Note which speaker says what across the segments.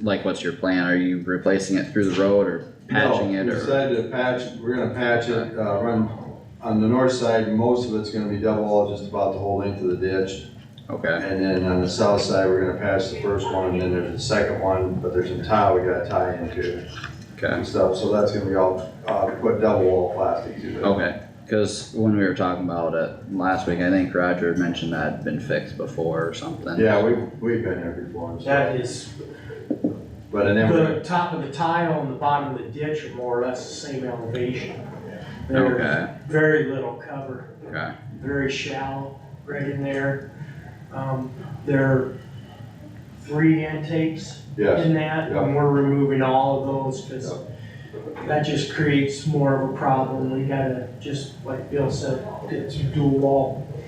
Speaker 1: like, what's your plan? Are you replacing it through the road or patching
Speaker 2: No,
Speaker 1: it
Speaker 2: we
Speaker 1: or?
Speaker 2: Decided to patch, we're gonna patch it, uh, run, on the north side, most of it's gonna be double wall, just about the whole length of the ditch.
Speaker 1: Okay,
Speaker 2: And then on the south side, we're gonna patch the first one, and then there's the second one, but there's some tile we gotta tie into
Speaker 1: okay,
Speaker 2: and stuff, so that's gonna be all, uh, put double wall plastic to it.
Speaker 1: okay. Cause when we were talking about it last week, I think Roger had mentioned that had been fixed before or something.
Speaker 2: Yeah, we, we've been here before, and stuff.
Speaker 3: That is,
Speaker 2: but and then we're
Speaker 3: the top of the tile and the bottom of the ditch are more or less the same elevation. There's
Speaker 1: Okay,
Speaker 3: very little cover,
Speaker 1: okay,
Speaker 3: very shallow, right in there. Um, there are three intakes
Speaker 2: Yes,
Speaker 3: in that, and we're removing all of those, cause that just creates more of a problem. We gotta, just like Bill said, get some dual wall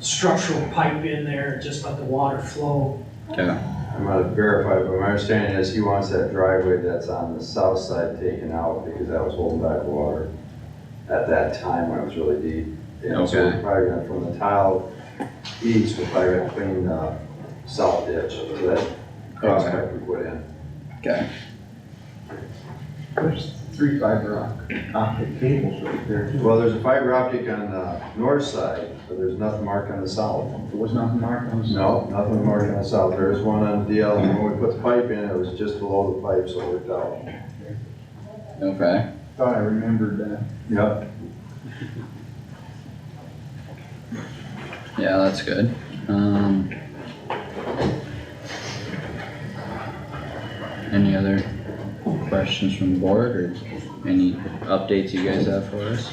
Speaker 3: structural pipe in there, just let the water flow.
Speaker 1: okay,
Speaker 2: I'm gonna verify, but my understanding is he wants that driveway that's on the south side taken out because that was holding back water at that time when it was really deep. And so we're
Speaker 1: Okay.
Speaker 2: probably gonna, from the tile east, we're probably gonna clean the south ditch so that cross pipe we put in.
Speaker 1: okay.
Speaker 4: There's three fiber op- optic cables right there.
Speaker 2: Well, there's a fiber optic on the north side, but there's nothing marked on the south.
Speaker 4: There was nothing marked on it.
Speaker 2: No, nothing marked on the south. There is one on DL and when we put the pipe in, it was just below the pipe, so it worked out.
Speaker 1: Okay,
Speaker 4: Thought I remembered that.
Speaker 2: Yep.
Speaker 1: yeah, that's good. Um. Any other questions from the board or any updates you guys have for us?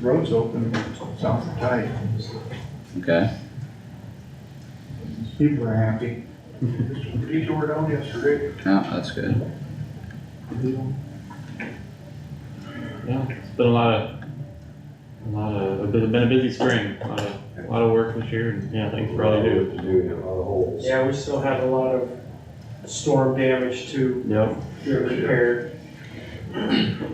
Speaker 4: Road's open, sounds tight.
Speaker 1: Okay,
Speaker 4: People are happy. Detour down yesterday.
Speaker 1: yeah, that's good.
Speaker 5: Yeah, it's been a lot of, a lot of, it's been a busy spring, a lot of, a lot of work this year, and yeah, thanks for all you do.
Speaker 2: To do, you know, all the holes.
Speaker 3: Yeah, we still have a lot of storm damage to
Speaker 5: Yep,
Speaker 3: repair.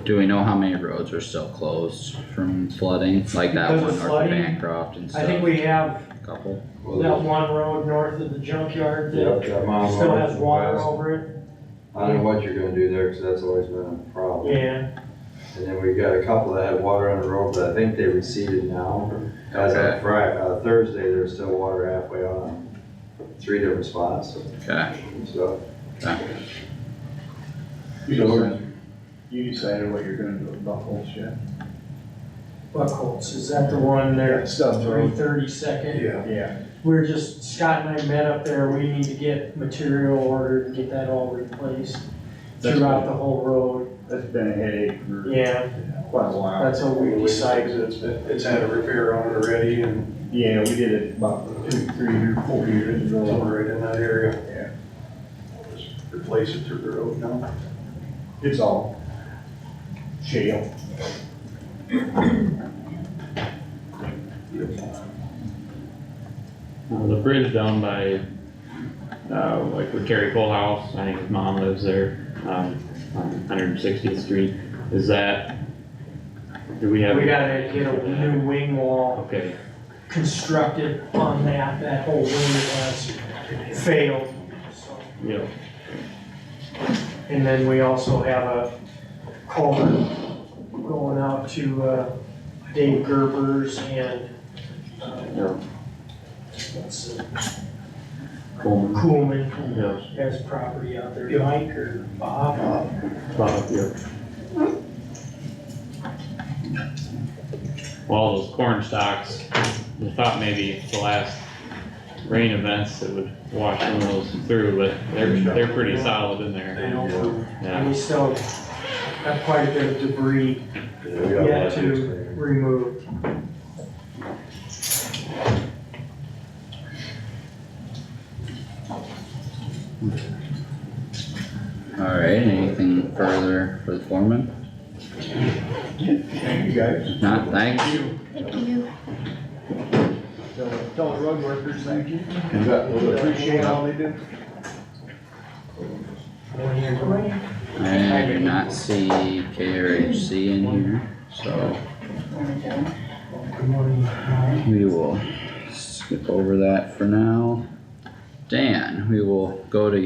Speaker 1: Do we know how many roads are still closed from flooding, like that
Speaker 3: Because
Speaker 1: one
Speaker 3: of
Speaker 1: north of
Speaker 3: flooding?
Speaker 1: Bancroft and
Speaker 3: I think
Speaker 1: stuff,
Speaker 3: we have
Speaker 1: couple?
Speaker 2: Well,
Speaker 3: that one road north of the junkyard that
Speaker 2: Yep, that mound.
Speaker 3: still has water over
Speaker 2: I don't know what you're gonna do there, cause that's always been a
Speaker 3: it.
Speaker 2: problem.
Speaker 3: Yeah,
Speaker 2: And then we got a couple that had water on the road, but I think they receded now. As
Speaker 1: Okay.
Speaker 2: of Fri- uh, Thursday, there's still water halfway on, three different spots,
Speaker 1: Okay,
Speaker 2: so.
Speaker 4: You decided, you decided what you're gonna do about holes yet?
Speaker 3: Buckholz, is that the one there?
Speaker 4: Stubbs
Speaker 3: Three
Speaker 4: Road.
Speaker 3: thirty second?
Speaker 4: Yeah. Yeah.
Speaker 3: We're just, Scott and I met up there, we need to get material ordered and get that all replaced
Speaker 4: That's
Speaker 3: throughout the whole road.
Speaker 4: That's been a headache for
Speaker 3: Yeah,
Speaker 4: quite a while.
Speaker 3: that's what we decided.
Speaker 6: It's, it's had a repair on it already and
Speaker 4: Yeah, we did it about two, three, or four years
Speaker 6: it's all
Speaker 4: ago.
Speaker 6: right in that area. Just Replace it through the road now.
Speaker 4: It's all shale.
Speaker 5: Uh, the bridge down by, uh, like where Terry Cole House, I think his mom lives there, um, on Hundred and Sixtieth Street, is that, do we have?
Speaker 3: We gotta get a new wing wall
Speaker 5: Okay,
Speaker 3: constructed on that, that whole room has failed. so.
Speaker 5: yep,
Speaker 3: And then we also have a culvert going out to uh, Dave Gerber's and, uh,
Speaker 5: yep,
Speaker 3: what's it,
Speaker 5: Coleman,
Speaker 3: Coolman
Speaker 5: yep,
Speaker 3: has property out there, Mike or Bob.
Speaker 5: Bob, yep. Well, all those corn stalks, we thought maybe the last rain events that would wash some of those through, but they're, they're pretty solid in
Speaker 6: They
Speaker 5: there,
Speaker 6: don't, move.
Speaker 5: yeah.
Speaker 3: And we still have quite a bit of debris
Speaker 2: yeah, we got
Speaker 3: yet
Speaker 2: lots of
Speaker 3: to
Speaker 2: experience.
Speaker 3: remove.
Speaker 1: alright, anything further for the foreman?
Speaker 4: Thank you guys.
Speaker 1: Not, thanks.
Speaker 4: Tell, tell the road workers, thank you.
Speaker 2: You bet.
Speaker 4: We Appreciate all they do.
Speaker 1: I do not see K or H C in here, so we will skip over that for now. Dan, we will go to